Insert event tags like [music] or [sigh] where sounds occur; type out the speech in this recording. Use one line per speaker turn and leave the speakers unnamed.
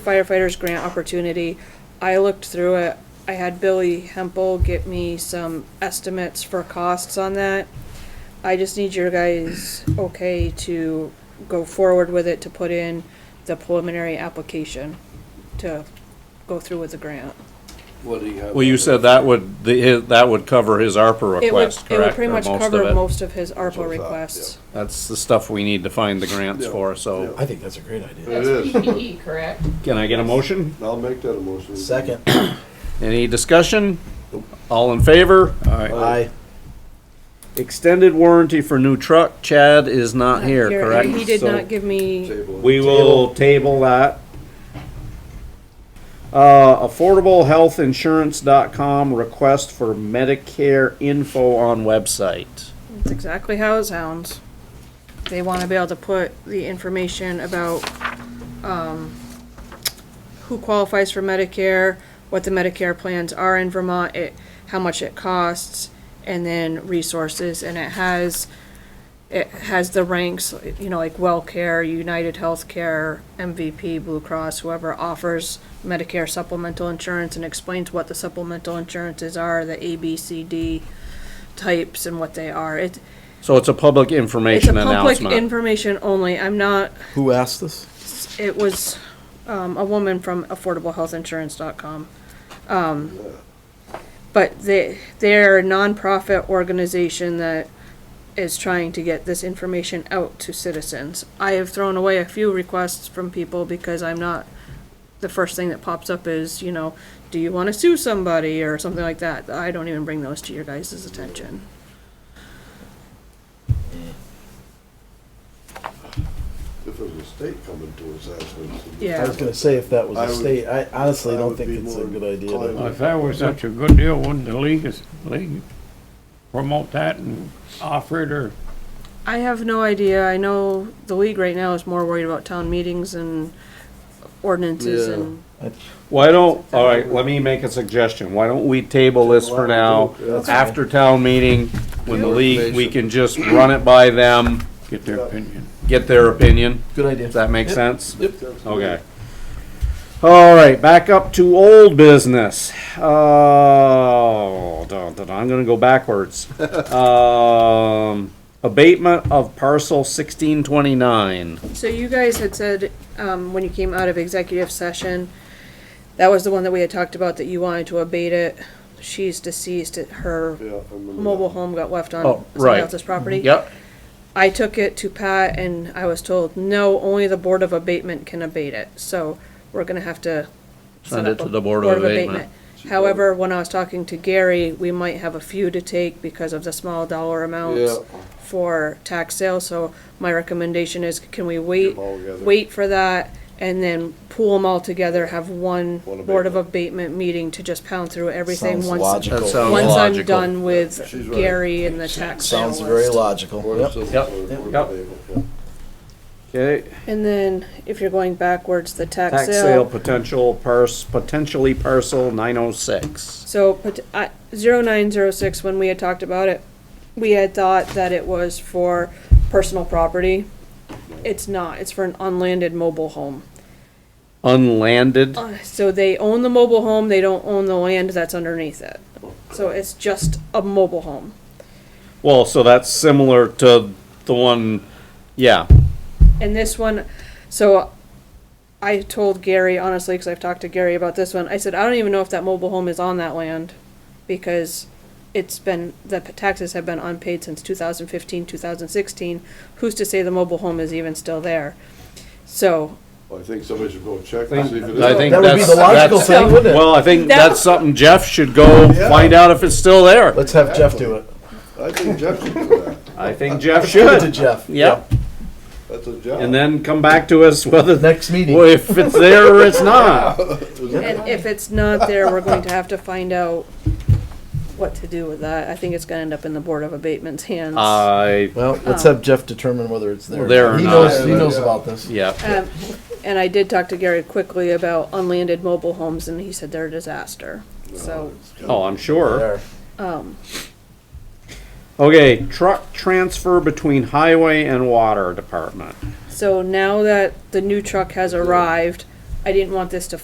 firefighters grant opportunity. I looked through it. I had Billy Hempel get me some estimates for costs on that. I just need your guys okay to go forward with it, to put in the preliminary application to go through with the grant.
What do you have?
Well, you said that would, the, his- that would cover his ARPA
It would,
request,
it would
correct?
pretty
Or
much
most of
cover
it?
most of his
what
ARPA
I thought,
requests.
That's the stuff we need to find the grants
Yeah,
for, so.
yeah.
I think that's a great idea.
It is.
That's PPE, correct?
Can I get a motion?
I'll make that a motion.
Second, [coughs]
Any discussion? All in favor?
I,
Extended warranty for new truck, Chad is not here,
Here,
correct?
He did
So
not give me,
Table.
We will table that. Uh, affordablehealthinsurance.com request for Medicare info on website.
that's exactly how it sounds. They want to be able to put the information about, um, who qualifies for Medicare, what the Medicare plans are in Vermont, it, how much it costs, and then resources, and it has, it has the ranks, you know, like WellCare, United Healthcare, MVP, Blue Cross, whoever offers Medicare supplemental insurance and explains what the supplemental insurances are, the A, B, C, D types and what they are. It,
So it's a public
it's a
information
public
announcement.
information only. I'm not,
who asked this?
it was, um, a woman from affordablehealthinsurance.com. Um, But they, they're a nonprofit organization that is trying to get this information out to citizens. I have thrown away a few requests from people because I'm not, the first thing that pops up is, you know, do you want to sue somebody or something like that? I don't even bring those to your guys' attention.
If it was a state coming to us asking. us to do
Yeah.
I was gonna say if that was
I
a
would-
state, I honestly
I
don't
would
think
be
it's a
more
good idea.
inclined-
to-
Well, If that was such a good deal, wouldn't the league, is- league promote that and offer it or?
I have no idea. I know the league right now is more worried about town meetings and ordinances
Yeah.
and
Why don't, all right, let me make a suggestion. Why don't we table this for now?
That's fine.
After town meeting, when the league, we can just run it by them,
Get their opinion.
get their opinion.
Good
Does
idea.
that make sense?
Sounds good.
Okay. All right, back up to old business. Oh, dun, dun, dun, I'm gonna go backwards. Um, abatement of parcel sixteen twenty-nine.
so you guys had said um, when you came out of executive session that was the one that we had talked about that you wanted to abate it she's deceased her
Yeah, I remember that.
mobile home got left on
Oh,
somebody
right.
else's property
Yep.
I took it to Pat and I was told, no, only the Board of Abatement can abate it, so we're gonna have to. set
Send it
up a
to the Board of Abatement.
However, when I was talking to Gary, we might have a few to take because of the small dollar amounts
Yeah.
for tax sale, so my recommendation is, can we wait?
'em all together.
Wait for that and then pool them all together, have one
One
Board of Abatement meeting to just pound through everything
Sounds
once.
logical.
That sounds
Once I'm
logical.
done with
She's right.
Gary and the tax sale
Sounds very
list.
logical.
Board of
Yep.
Civil
Yep.
Service,
Yep.
Board
Yep.
of Able, yeah.
Okay,
And then, if you're going backwards, the tax
tax sale
sale.
potential pars, potentially parcel nine oh six.
So, pot- uh, 0906, when we had talked about it, we had thought that it was for personal property. It's not, it's for an unlanded mobile home.
Unlanded,
Uh, So they own the mobile home, they don't own the land that's underneath it. So it's just a mobile home.
well, so that's similar to the one, yeah,
And this one, so I told Gary, honestly, because I've talked to Gary about this one, I said, I don't even know if that mobile home is on that land because it's been, the p- taxes have been unpaid since 2015, 2016. Who's to say the mobile home is even still there? So
Well, I think somebody should go check and see if it is.
I think
That would be
that's.
the logical
that's-
thing, wouldn't it?
Well, I think
That-
that's something Jeff should go
Yeah.
find out if it's still there.
Let's have Jeff do it.
I think Jeff should do that.
I think Jeff
Give it to
should,
Jeff.
yep,
That's a job.
and then come back to us whether,
Next meeting.
well, if it's there or it's
[laughs]
not.
And if it's not there, we're going to have to find out what to do with that. I think it's gonna end up in the Board of Abatement's hands.
Uh, I,
Well, let's
Oh.
have Jeff determine whether it's there.
There or
He
not.
knows, he knows about this.
yeah.
Um, And I did talk to Gary quickly about unlanded mobile homes and he said they're a disaster. So
Oh, I'm sure.
There.
Okay, truck transfer between highway and water department.
So now that the new truck has arrived, I didn't want this to